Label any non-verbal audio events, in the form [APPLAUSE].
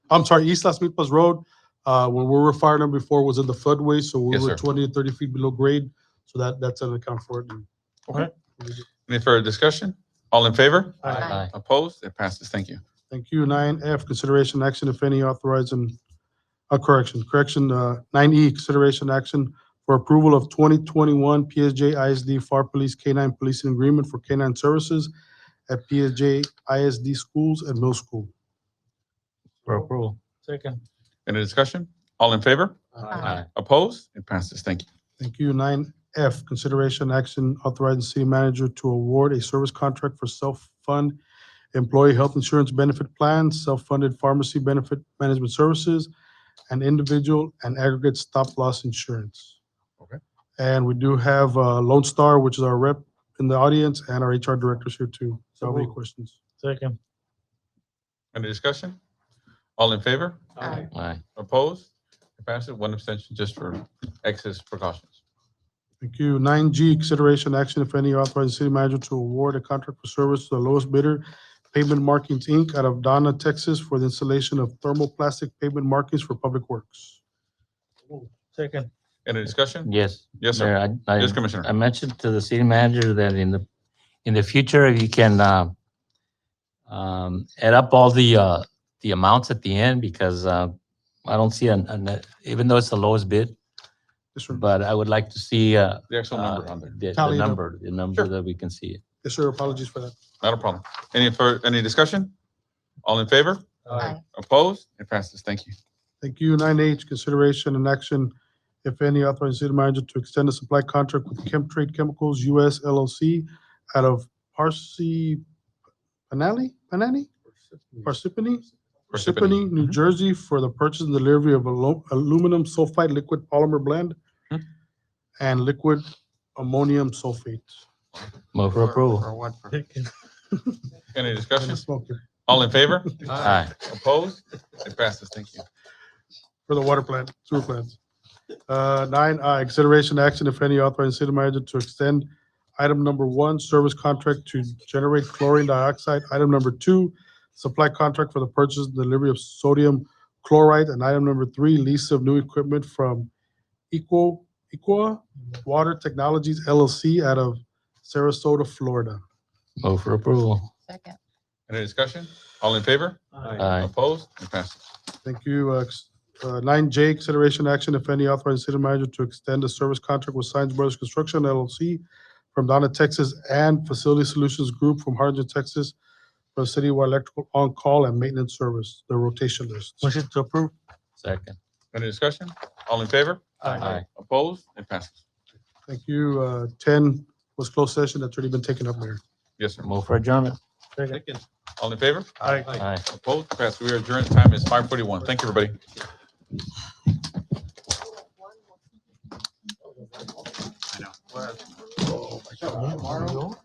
I'm sorry, East Las Milpas Road, uh, where we were fire number four was in the floodway, so we Yes, were sir. twenty to thirty feet below grade. So that, that's an account for it. Okay. Any further discussion? All in favor? Opposed? It passes. Thank you. Thank you. Nine F, consideration action, if any, authorizing, uh, correction, correction, uh, nine E, consideration action for approval of twenty twenty-one PSJ ISD FAR Police K-9 Policing Agreement for K-9 Services at PSJ ISD Schools and Middle School. For approval. Second. Any discussion? All in favor? Aye. Opposed? It passes. Thank you. Thank you. Nine F, consideration action authorizing city manager to award a service contract for self-fund employee health insurance benefit plans, self-funded pharmacy benefit management services, and individual and aggregate stop-loss insurance. Okay. And we do have uh, Lone Star, which is our rep in the audience, and our HR director's here too. So any moved. questions? Second. Any discussion? All in favor? Aye. Opposed? It passes. One abstention just for excess precautions. Thank you. Nine G, consideration action, if any, authorizing city manager to award a contract for service to the lowest bidder, Pavement Markings, Inc., out of Donna, Texas, for the installation of thermoplastic pavement markings for public works. Second. Any discussion? Yes. Yes, sir. Mayor, I- Yes, I, I Commissioner. mentioned to the city manager that in the, in the future, if you can, uh, um, add up all the, uh, the amounts at the end because, uh, I don't see an, an, even though it's the lowest bid, Yes, sir. but I would like to see, uh, The actual number uh, on there. The, the Tally it up. number, the number Sure. that we can see. it. Yes, sir. Apologies for that. Not a problem. Any further, any discussion? All in favor? Aye. Opposed? It passes. Thank you. Thank you. Nine H, consideration and action, if any, authorizing city manager to extend a supply contract with Chemtrade Chemicals US LLC out of Parsi, Panali, Panani? Parsippany? Parsippany, New Mhm. Jersey, for the purchase and delivery of alu- aluminum sulfide liquid polymer blend Mhm. and liquid ammonium sulfate. Move for approval. Second. Any And discussion? a smoker All in [LAUGHS] favor? Aye. Opposed? It passes. Thank you. For the water plant, sewer plants. Uh, Nine I, consideration action, if any, authorizing city manager to extend item number one, service contract to generate chlorine dioxide. Item number two, supply contract for the purchase and delivery of sodium chloride. And item number three, lease of new equipment from Equal, Equa Water Technologies LLC out of Sarasota, Florida. Move for approval. Second. Any discussion? All in favor? Uh, Aye. Opposed? It passes. Thank you. Uh, ex- uh, Nine J, consideration action, if any, authorizing city manager to extend a service contract with Science Brothers Construction LLC from Donna, Texas, and Facility Solutions Group from Harlingen, Texas, for citywide electrical on-call and maintenance service, the rotation list. Motion to approve. Second. Any discussion? All in favor? Aye. Opposed? It passes. Thank you. Uh, Ten was closed session. That's already been taken up, Mayor. Yes, sir. Move for adjournment. Second. All in favor? Aye. Aye. Opposed? It passes. We are adjourned. Time is five forty-one. Thank you, everybody.